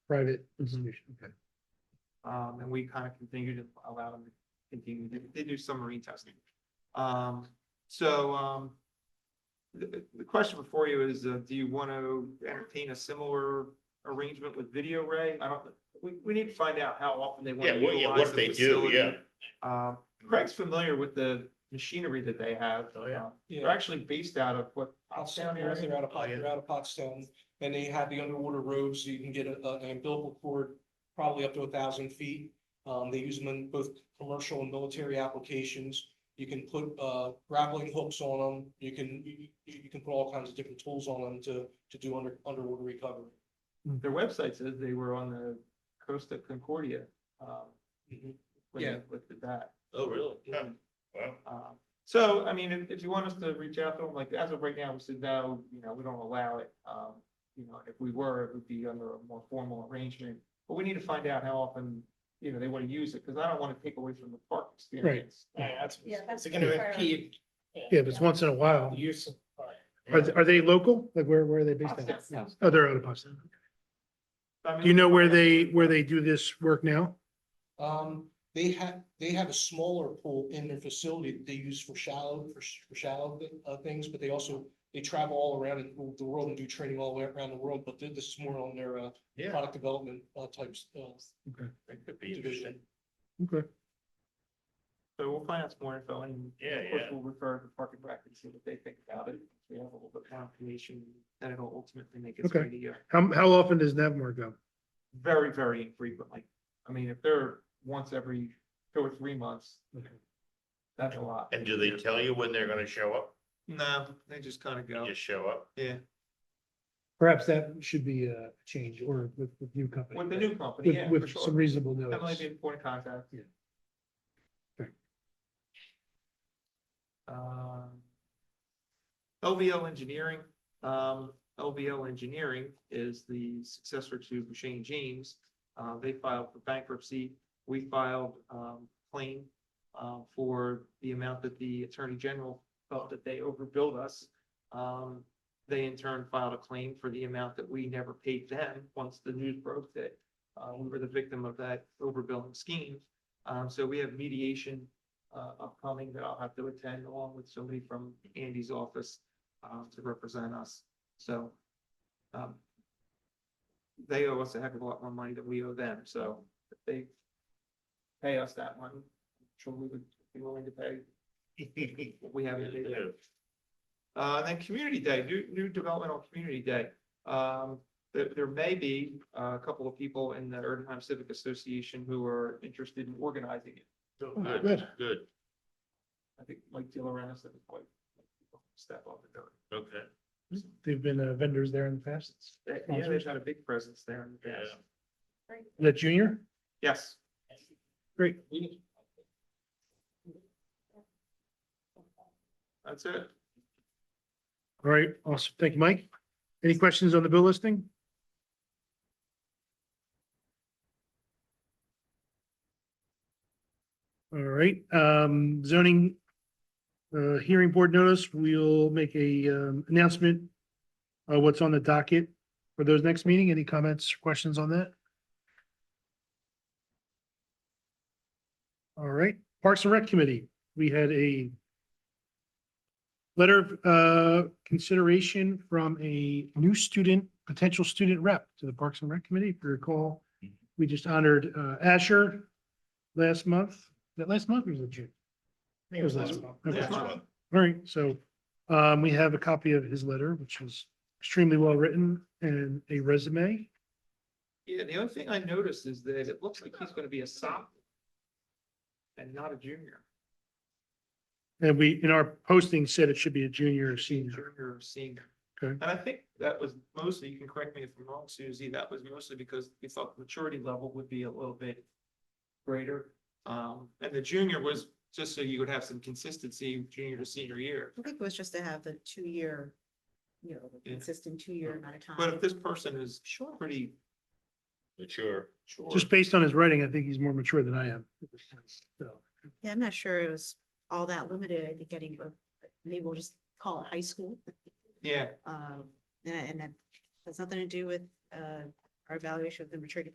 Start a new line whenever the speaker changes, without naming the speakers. private institution, okay.
Um, and we kind of continue to allow them to continue, They- they do some marine testing. Um, so, um, the, the question before you is, uh, do you want to entertain a similar arrangement with Video Ray? I don't, we, we need to find out how often they want
Yeah,
to
what, yeah,
utilize
what
the
they do,
facility.
yeah.
Um, Craig's familiar with the machinery that they have.
Oh, yeah.
Um, They're actually based out of what, Pottstown
Pottstown,
area?
they're out of, Pot-
Oh, yeah.
they're out of Pottstown, and they have the underwater roads, you can get a, a- an umbilical cord probably up to a thousand feet. Um, they use them in both commercial and military applications. You can put, uh, grappling hooks on them, you can, you, you you can put all kinds of different tools on them to, to do under, underwater recovery.
Their website says they were on the coast of Concordia, um,
Mhm.
when they
Yeah.
looked at that.
Oh, really? Yeah, wow.
Um, So, I mean, if, if you want us to reach out to them, like, as of right now, we said, no, you know, we don't allow it. Um, you know, if we were, it would be under a more formal arrangement, but we need to find out how often, you know, they want to use it, because I don't want to take away from the park experience.
that's,
Yeah, that's
it's gonna
the priority.
impede
Yeah, but it's once in a while.
use of. park.
Are, th- are they local? Like where, where are they based
Pottstown.
at? Oh, they're out of Pottstown.
I mean,
Do you know where they, where they do this work now?
Um, they have, they have a smaller pool in their facility that they use for shallow, for sh- for shallow thi- uh, things, but they also, they travel all around and- the world and do training all the way around the world, but th- this is more on their, uh,
Yeah.
product development, uh, types, uh,
It could be interesting.
division.
Okay.
So we'll find out some more info and.
Yeah,
Of course,
yeah.
we'll refer to Park and Rec and see what they think about it. We have a little bit more information, then it'll ultimately make its way
Okay.
to you.
How, how often does Navmar go?
Very, very infrequently. I mean, if they're once every two or three months, that's a lot.
And do they tell you when they're gonna show up?
No, they just kind of go.
Just show up?
Yeah,
Perhaps that should be a change or with, with new company.
with the new company,
With,
yeah, for
with some
sure.
reasonable
That might be
notice.
an important contact.
Yeah. Okay.
Um. LVO Engineering, um, LVO Engineering is the successor to Shane James. Uh, they filed for bankruptcy. We filed, um, claim, um, for the amount that the Attorney General felt that they overbilled us. Um, they in turn filed a claim for the amount that we never paid them once the news broke that uh, we were the victim of that overbilling scheme. Um, so we have mediation, uh, upcoming that I'll have to attend along with somebody from Andy's office, um, to represent us. So, um, they owe us a heck of a lot more money than we owe them. So if they pay us that one, I'm sure we would be willing to pay. what We haven't paid them. Uh, and then Community Day, new, new development on Community Day. Um, there, there may be uh, a couple of people in the Erdenheim Civic Association who are interested in organizing it.
Oh,
Good,
Good.
good,
I think Mike DiLorenzo said it's quite step up and do
okay.
They've been uh, vendors there in the past. Is
it. They- Yeah, they've had a big presence there in the past.
that junior?
Yes,
Great.
that's it.
All right. Awesome. Thank you, Mike. Any questions on the bill listing? All right, um, zoning, uh, hearing board notice, we'll make a, um, announcement. Uh, what's on the docket for those next meeting? Any comments, questions on that? All right, Parks and Rec Committee, we had a letter of uh, consideration from a new student, potential student rep to the Parks and Rec Committee. If you recall, we just honored uh, Asher last month. That last month or was it June? I think it was last month. Okay.
Last month.
All right, so um, we have a copy of his letter, which was extremely well written and a resume.
Yeah, the only thing I noticed is that it looks like he's gonna be a sophomore and not a junior.
And we, in our posting, said it should be a junior or senior.
Junior or senior.
Okay.
And I think that was mostly, you can correct me if I'm wrong, Susie, that was mostly because we thought the maturity level would be a little bit greater. Um, and the junior was just so you would have some consistency, junior to senior year.
I think it was just to have the two-year, you know, the
Yeah. Mm.
consistent two-year amount of time.
But if this person is
Sure.
pretty
Mature.
sure.
Just based on his writing, I think he's more mature than I am. So.
Yeah, I'm not sure it was all that limited. I think getting, uh, maybe we'll just call it high school.
Yeah,
Um, and, and that has nothing to do with, uh, our evaluation of the maturity